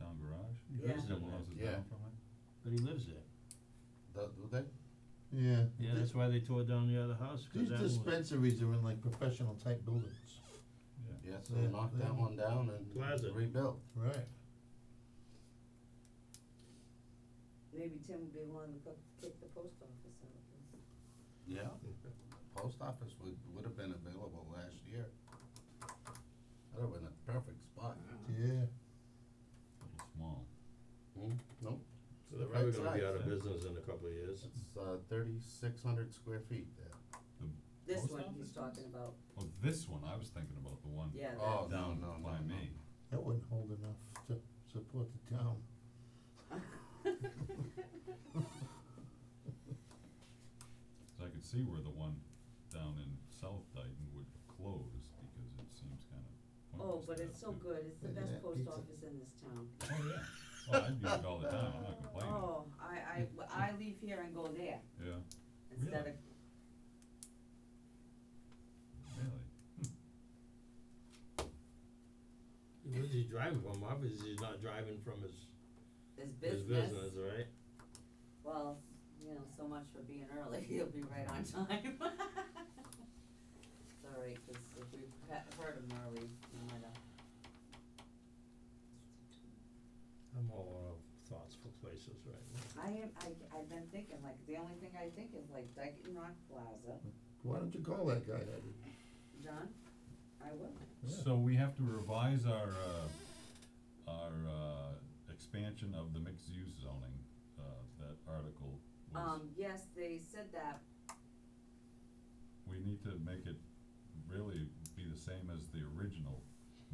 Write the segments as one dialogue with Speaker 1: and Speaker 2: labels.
Speaker 1: election?
Speaker 2: Yeah.
Speaker 3: His double houses
Speaker 4: Yeah.
Speaker 3: down from it, but he lives there.
Speaker 4: That, do they?
Speaker 2: Yeah.
Speaker 3: Yeah, that's why they tore down the other house, cause
Speaker 2: These
Speaker 3: that was.
Speaker 2: dispensaries are in like professional type buildings.
Speaker 3: Yeah.
Speaker 4: Yeah, so they
Speaker 2: Yeah,
Speaker 4: knocked
Speaker 2: yeah.
Speaker 4: that one down
Speaker 3: Plaza.
Speaker 4: and rebuilt.
Speaker 2: Right.
Speaker 5: Maybe Tim would be willing to cook, kick the post office out of this.
Speaker 4: Yeah. Post office would, would have been available last year. That'd have been a perfect spot.
Speaker 2: Yeah.
Speaker 3: but it's Small.
Speaker 4: Hmm? Nope.
Speaker 6: So they're probably
Speaker 4: Right
Speaker 6: gonna be
Speaker 4: size,
Speaker 6: out of
Speaker 3: yeah.
Speaker 6: business in a couple of years.
Speaker 4: It's, uh, thirty-six hundred square feet there.
Speaker 5: This
Speaker 3: Post
Speaker 5: one
Speaker 3: office
Speaker 5: he's
Speaker 3: is-
Speaker 5: talking about,
Speaker 7: Well, Oh, this one, I was thinking about the one
Speaker 5: yeah,
Speaker 4: Oh,
Speaker 5: that,
Speaker 4: no,
Speaker 7: down
Speaker 4: no, no,
Speaker 7: by
Speaker 4: no.
Speaker 7: me.
Speaker 2: That wouldn't hold enough to support the town.
Speaker 7: So I could see where the one down in South Dayton would close because it seems kind of
Speaker 5: oh,
Speaker 7: pointless.
Speaker 5: but
Speaker 7: to
Speaker 5: it's
Speaker 7: have
Speaker 5: so
Speaker 7: two-
Speaker 5: good, it's the
Speaker 2: Yeah,
Speaker 5: best
Speaker 2: yeah,
Speaker 5: post
Speaker 2: pizza.
Speaker 5: office in this town.
Speaker 7: Oh, yeah. Well, I use it all the time. I'm not complaining.
Speaker 5: Oh, I, I, I leave here and go there
Speaker 7: Yeah,
Speaker 5: instead of,
Speaker 7: really.
Speaker 6: Where's he driving from? Obviously, he's not driving from his,
Speaker 5: it's
Speaker 6: his business, right?
Speaker 5: Well, you know, so much for being early, you'll be right on time. It's all right, 'cause if we he- heard him early, we might have.
Speaker 6: I'm all out of thoughts for places right now.
Speaker 5: I am, I, I've been thinking, like, the only thing I think is like Dyken Rock Plaza,
Speaker 2: Why don't you call that guy that?
Speaker 5: John, I will,
Speaker 2: Yeah.
Speaker 7: So we have to revise our, uh, our, uh, expansion of the mixed use zoning, uh, that article was,
Speaker 5: um, yes, they said that,
Speaker 7: we need to make it really be the same as the original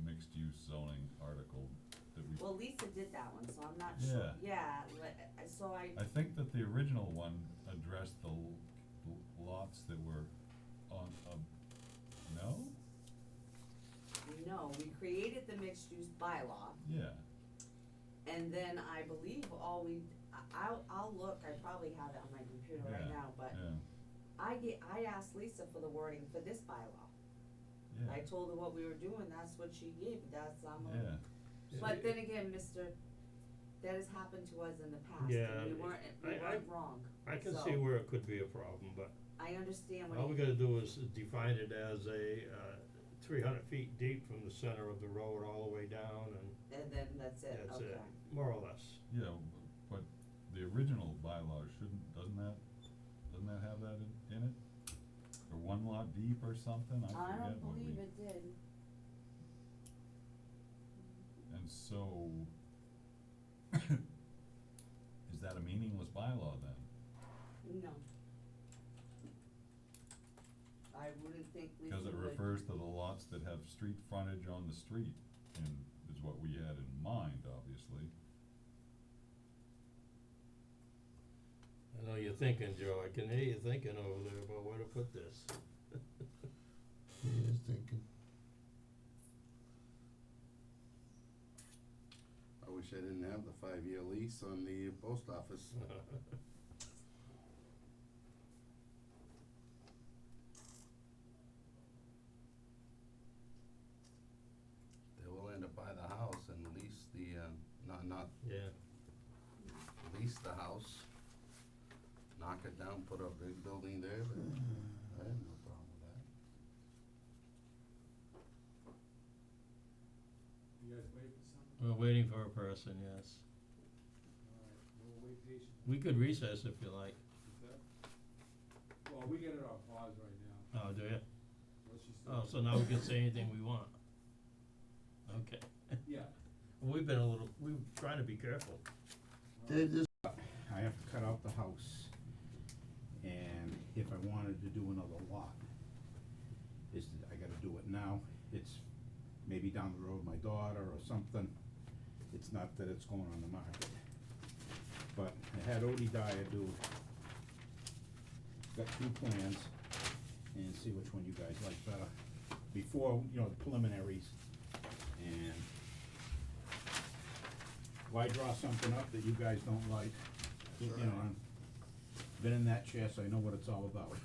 Speaker 7: mixed use zoning article that we,
Speaker 5: well, Lisa did that one, so I'm not sure, yeah, le- uh, so I,
Speaker 7: I think that the original one addressed the l- l- lots that were on, um, no?
Speaker 5: no, we created the mixed use bylaw,
Speaker 7: Yeah,
Speaker 5: and then I believe all we, I- I'll, I'll look, I probably have it on my computer right
Speaker 7: Yeah,
Speaker 5: now, but
Speaker 7: yeah,
Speaker 5: I get, I asked Lisa for the wording for this bylaw. I
Speaker 7: yeah,
Speaker 5: told her what we were doing, that's what she gave, that's, I'm, a-
Speaker 7: yeah,
Speaker 5: but then again, mister, that has happened to us in the past,
Speaker 6: Yeah,
Speaker 5: and we weren't, we
Speaker 6: I- I-
Speaker 5: weren't wrong,
Speaker 6: I can
Speaker 5: So-
Speaker 6: see where it could be a problem, but
Speaker 5: I understand
Speaker 6: all we
Speaker 5: what you,
Speaker 6: gotta do is define it as a, uh, three hundred feet deep from the center of the road all the way down and
Speaker 5: and then that's it,
Speaker 6: that's
Speaker 5: okay.
Speaker 6: it, more or less.
Speaker 7: yeah, w- but the original bylaw shouldn't, doesn't that, doesn't that have that in, in it? Or one lot deep or something, I
Speaker 5: I
Speaker 7: forget
Speaker 5: don't
Speaker 7: what we.
Speaker 5: believe it did,
Speaker 7: And so, is that a meaningless bylaw then?
Speaker 5: no. I wouldn't think Lisa
Speaker 7: Cause
Speaker 5: would.
Speaker 7: it refers to the lots that have street frontage on the street, and is what we had in mind, obviously.
Speaker 6: I know you're thinking, Joe, I can hear you thinking over there about where to put this.
Speaker 2: He is thinking.
Speaker 4: I wish I didn't have the five-year lease on the post office. They will end up buy the house and lease the, uh, not, not
Speaker 6: Yeah,
Speaker 4: lease the house, knock it down, put a big building there, but I have no problem with that.
Speaker 1: You guys waiting for something?
Speaker 6: we're waiting for a person, yes.
Speaker 1: Alright, we'll wait patiently.
Speaker 6: We could recess if you like.
Speaker 1: Is that- Well, we got it on pause right now,
Speaker 6: Oh, do you?
Speaker 1: unless you still.
Speaker 6: Oh, so now we can say anything we want. Okay.
Speaker 1: Yeah.
Speaker 6: We've been a little, we've tried to be careful.
Speaker 2: Dave, this
Speaker 8: I have to cut out the house, and if I wanted to do another lot, is, that I gotta do it now, it's maybe down the road, my daughter or something, it's not that it's going on the market. But I had Odie Dyer do, got two plans, and see which one you guys like better, before, you know, the preliminaries, and why draw something up that you guys don't like? You know, I've been in that chair, so I know what it's all about.